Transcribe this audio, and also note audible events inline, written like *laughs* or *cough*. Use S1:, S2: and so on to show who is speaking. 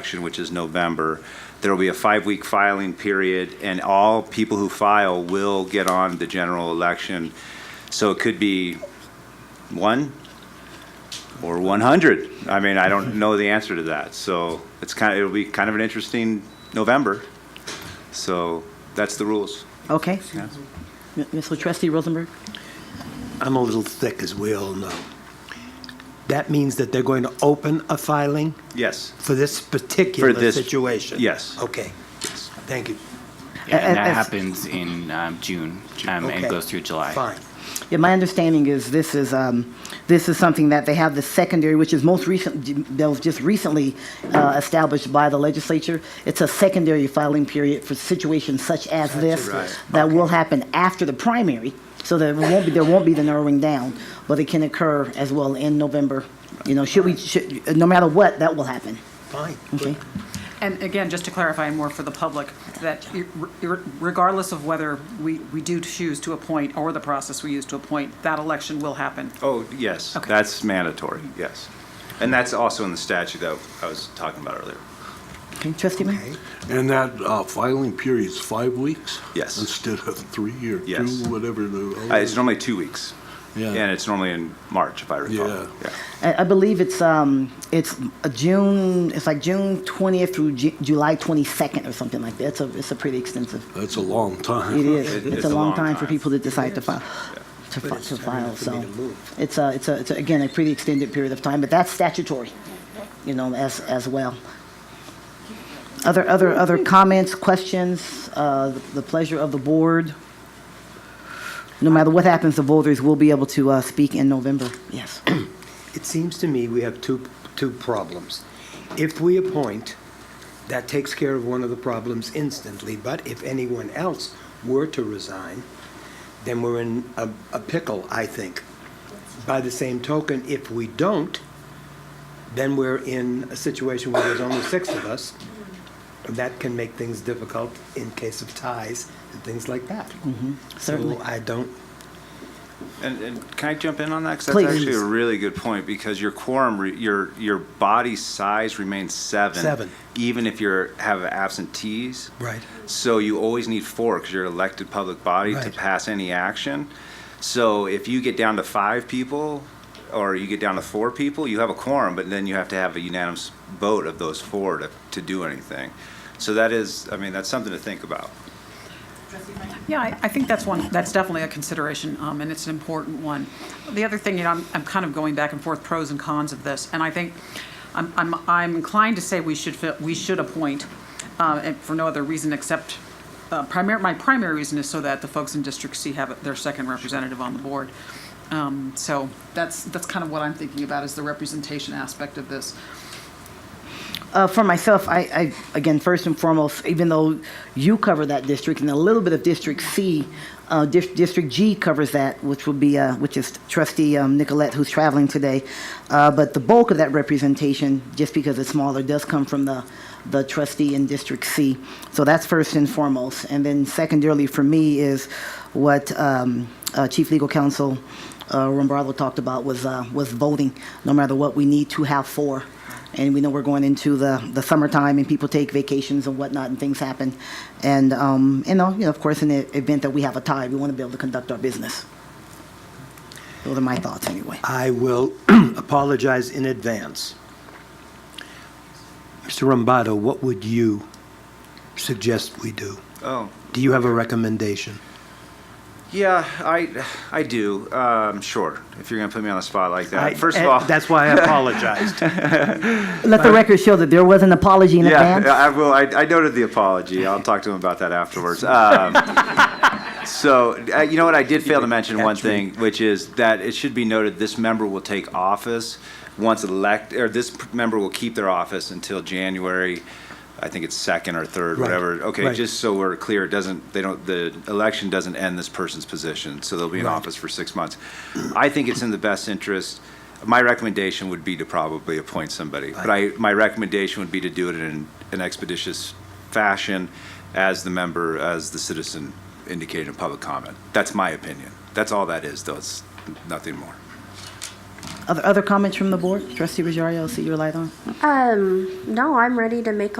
S1: election, which is November. There will be a five-week filing period, and all people who file will get on the general election. So it could be one or 100. I mean, I don't know the answer to that. So it's kind of, it'll be kind of an interesting November. So that's the rules.
S2: Okay.
S1: Yeah.
S2: M- Mr. Trustee Rosenberg?
S3: I'm a little thick, as we all know. That means that they're going to open a filing
S1: Yes.
S3: for this particular
S1: this-
S3: situation?
S1: yes.
S3: Okay. Thank you.
S4: Yeah, and
S2: Uh, uh,
S4: that
S2: uh,
S4: happens in um, June um, and
S3: Okay.
S4: goes through July.
S3: Fine.
S2: Yeah, my understanding is this is, um, this is something that they have the secondary, which is most recent, that was just recently uh, established by the legislature. It's a secondary filing period for situations such as this.
S3: right.
S2: That will happen after the primary, so there won't be, there won't be the narrowing down, but it can occur as well in November. You know, should we, should, no matter what, that will happen.
S3: Fine.
S2: Okay.
S5: And again, just to clarify more for the public, that ir- regardless of whether we, we do choose to appoint or the process we use to appoint, that election will happen.
S1: Oh, yes.
S5: Okay.
S1: That's mandatory, yes. And that's also in the statute that I was talking about earlier.
S2: Okay, Trustee Mayor?
S6: And that uh, filing period's five weeks?
S1: Yes.
S6: Instead of three or
S1: Yes.
S6: two, whatever the.
S1: Uh, It's normally two weeks.
S6: Yeah.
S1: And it's normally in March, if I recall.
S6: Yeah.
S2: I, I believe it's um it's a June it's like June twentieth through Ju- July twenty second or something like that. It's a it's a pretty extensive.
S6: That's a long time.
S2: It is.
S1: It-
S2: it's,
S1: it's
S2: a long, time, for people to decide to file. To, fi-
S3: it's
S2: to
S3: time
S2: file,
S3: for me
S2: so
S3: to move.
S2: it's a, it's a, it's a- again a pretty extended period of time, but that's statutory, you know, as as well. Other other other comments, questions, uh, the, the pleasure of the board. No matter what happens, the voters will be able to uh, speak in November. Yes.
S3: It seems to me we have two, two problems. If we appoint, that takes care of one of the problems instantly, but if anyone else were to resign, then we're in a, a pickle, I think. By the same token, if we don't, then we're in a situation where there's only six of us. and That can make things difficult in case of ties and things like that.
S2: certainly.
S3: So I don't,
S1: And, and can I jump in on that? 'Cause
S2: Please.
S1: that's actually a really good point, because your quorum, re- your, your body size remains seven.
S3: Seven.
S1: Even if you're, have absentees.
S3: Right.
S1: So you always need four, because you're an elected public body to
S3: Right.
S1: pass any action. So if you get down to five people, or you get down to four people, you have a quorum, but then you have to have a unanimous vote of those four to, to do anything. So that is, I mean, that's something to think about.
S5: Yeah, I, I think that's one, that's definitely a consideration, um, and it's an important one. The other thing, you know, I'm, I'm kind of going back and forth, pros and cons of this, and I think, I'm, I'm, I'm inclined to say we should, fi- we should appoint, uh, and for no other reason except, uh, primary, my primary reason is so that the folks in District C have their second representative on the board. Um, so that's, that's kind of what I'm thinking about, is the representation aspect of this.
S2: Uh, for myself, I, I, again, first and foremost, even though you cover that district and a little bit of District C, uh, Dis- District G covers that, which will be, uh, which is trustee um, Nicolette, who's traveling today. Uh, but the bulk of that representation, just because it's smaller, does come from the, the trustee in District C. So that's first and foremost. And then secondarily for me is what um, uh, Chief Legal Counsel uh, Rombardo talked about was, uh, was voting. No matter what, we need to have four. And we know we're going into the, the summertime and people take vacations and whatnot and things happen. And, um, and, uh, you know, of course, in the event that we have a tie, we want to be able to conduct our business. Those are my thoughts anyway.
S3: I will *clears throat* apologize in advance. Mr. Rombato, what would you suggest we do?
S1: Oh,
S3: Do you have a recommendation?
S1: Yeah, I, I do. Um, sure. If you're going to put me on the spot like that,
S3: I-
S1: Uh, first of
S3: eh,
S1: all,
S3: That's why I apologized.
S2: Let the record show that there was an apology
S1: *laughs*
S2: in
S1: yeah,
S2: advance.
S1: I will. I, I noted the apology. I'll talk to him about that
S3: *laughs*
S1: afterwards. Um, so, uh, you know what? I did fail to mention one
S3: Catch me.
S1: thing, which is that it should be noted this member will take office once elect, or this p- member will keep their office until January. I think it's second or third,
S3: Right,
S1: whatever. Okay,
S3: right.
S1: just so we're clear, it doesn't they don't the election doesn't end this person's position, so they'll be in office for six months. I think it's in the best interest. My recommendation would be to probably appoint somebody, but I my recommendation would be to do it in an expeditious fashion, as the member, as the citizen indicated in public comment. That's my opinion. That's all that is, though. It's nothing more.
S2: Other, other comments from the board? Trustee Rosario, I see your light on.
S7: Um, no, I'm ready to make a